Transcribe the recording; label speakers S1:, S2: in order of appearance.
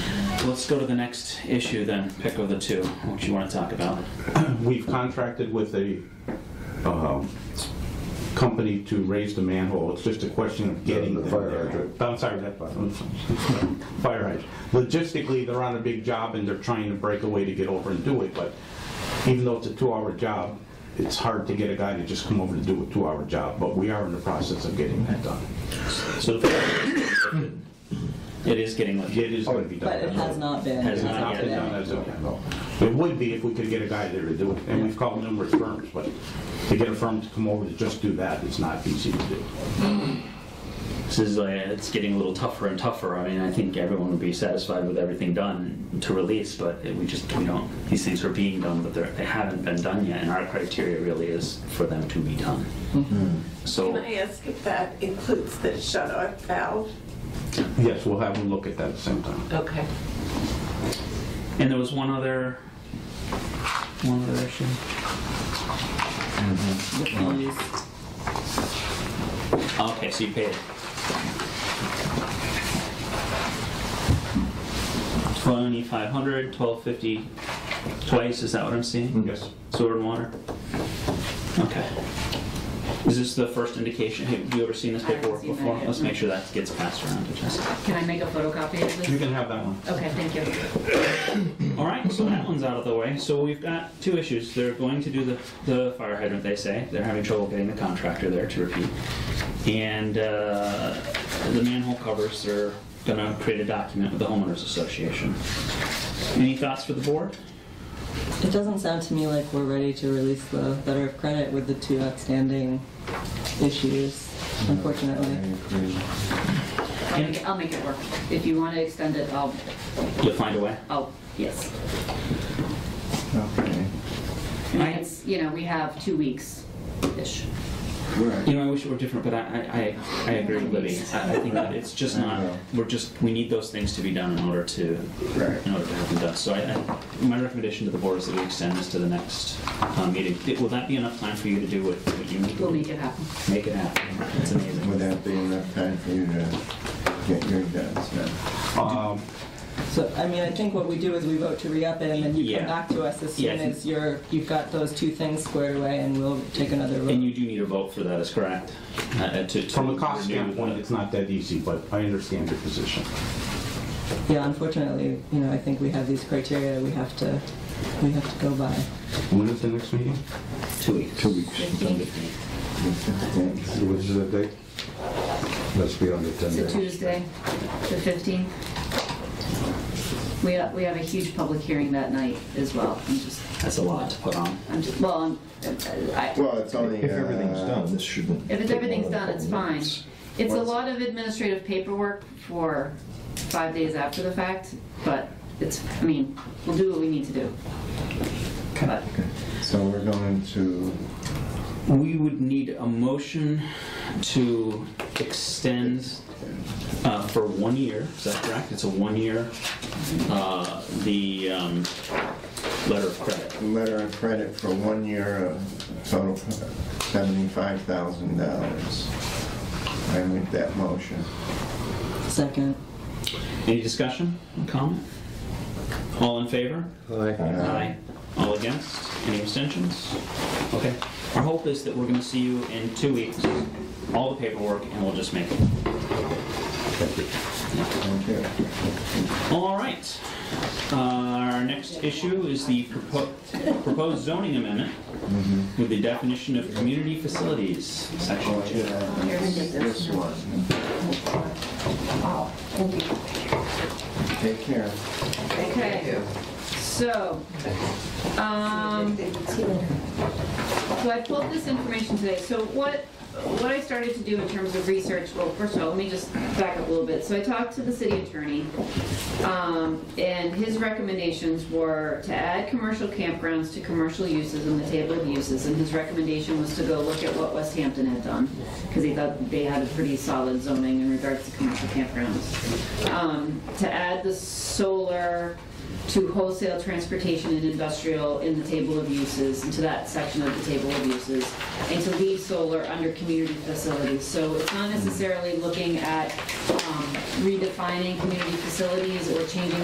S1: let's go to the next issue then. Pick of the two, what you want to talk about.
S2: We've contracted with a um, company to raise the manhole. It's just a question of getting
S3: The-
S2: them
S3: the
S2: there.
S3: fire hydrant.
S2: I'm sorry, that, fire hydrant. Logistically, they're on a big job and they're trying to break away to get over and do it, but even though it's a two-hour job, it's hard to get a guy to just come over to do a two-hour job, but we are in the process of getting that done.
S1: So it is getting lifted.
S2: It is going to be done.
S4: But it has not been.
S1: Has
S2: It's not been done as of yet, no. It would be if we could get a guy there to do it, and we've called numerous firms, but to get a firm to come over to just do that is not easy to do.
S1: This is like, it's getting a little tougher and tougher. I mean, I think everyone would be satisfied with everything done to release, but we just, we don't, these things are being done, but they're, they haven't been done yet, and our criteria really is for them to be done. So.
S5: Can I ask if that includes the shut-off valve?
S2: Yes, we'll have them look at that at the same time.
S5: Okay.
S1: And there was one other, one other issue. Okay, so you paid. Twenty-five hundred, twelve fifty, twice, is that what I'm seeing?
S2: Yes.
S1: Sewer and water? Okay. Is this the first indication, have you ever seen this
S6: I haven't
S1: paperwork
S6: seen that
S1: before?
S6: yet,
S1: Let's
S6: no.
S1: make sure that gets passed around to Jessica.
S6: Can I make a photocopy of
S2: You
S6: this?
S2: can have that one.
S6: Okay, thank you.
S1: All right, so that one's out of the way. So we've got two issues. They're going to do the, the fire hydrant, they say. They're having trouble getting the contractor there to repeat. And uh, the manhole covers, they're gonna create a document with the homeowners association. Any thoughts for the board?
S4: It doesn't sound to me like we're ready to release the letter of credit with the two outstanding issues,
S1: Mm-hmm.
S4: unfortunately.
S6: I'll make, it- I'll make it work. If you want to extend it, I'll,
S1: You'll find a way.
S6: I'll, yes.
S3: Okay.
S6: And It's, you know, we have two weeks-ish.
S1: You know, I wish it were different, but I, I, I- I agree with Libby. I I think that it's just not, we're just, we need those things to be done in order to, in order to have them done. So I, I, my recommendation to the board is that we extend this to the next uh, meeting. It- Will that be enough time for you to do what what you need?
S6: We'll make it happen.
S1: Make it happen. It's
S3: Would
S1: amazing.
S3: that be enough time for you to get your guns done?
S2: Um,
S4: So, I mean, I think what we do is we vote to re-up it, and then you
S1: Yeah.
S4: come back to us as
S1: Yeah, I
S4: soon
S1: think-
S4: as you're, you've got those two things squared away, and we'll take another
S1: And you
S4: vote.
S1: do need a vote for that, is correct? Uh, uh, to- to
S2: From a cost
S1: renew the-
S2: standpoint, it's not that easy, but I understand your position.
S4: Yeah, unfortunately, you know, I think we have these criteria we have to, we have to go by.
S2: When is the next meeting?
S1: Two weeks.
S3: Two weeks. Thanks.
S7: Which is the date? Let's be on the 10
S6: It's
S7: day.
S6: a Tuesday, the 15th. We have, we have a huge public hearing that night as well. I'm just,
S1: That's a lot to put on.
S6: I'm just, well, I'm- I,
S3: Well, it's only.
S8: If everything's
S3: uh,
S8: done, this shouldn't.
S6: if it's,
S8: take
S6: everything's
S8: more than
S6: done,
S8: a
S6: it's
S8: couple
S6: fine.
S8: minutes.
S6: It's a lot of administrative paperwork for five days after the fact, but it's, I mean, we'll do what we need to do. But
S3: So we're going to,
S1: We would need a motion to extend uh, for one year, is that correct? It's a one-year, uh, the um, letter of credit.
S3: letter of credit for one year of total seventy-five thousand dollars. I make that motion.
S4: Second.
S1: Any discussion, comment? All in favor? Aye. All against? Any abstentions? Okay. Our hope is that we're going to see you in two weeks, all the paperwork, and we'll just make it.
S3: Okay.
S1: All right. Uh, Our next issue is the propo- proposed zoning amendment with the definition of community facilities, section
S3: Oh,
S1: two.
S3: yeah, this- This one. Take care.
S6: Okay, so, um, so I pulled this information today, so what, what I started to do in terms of research, well, first of all, let me just back up a little bit. So I talked to the city attorney, um, and his recommendations were to add commercial campgrounds to commercial uses in the table of uses, and his recommendation was to go look at what West Hampton had done, because he thought they had a pretty solid zoning in regards to commercial campgrounds. Um, To add the solar to wholesale transportation and industrial in the table of uses, into that section of the table of uses, and to leave solar under community facilities. So it's not necessarily looking at um, redefining community facilities or changing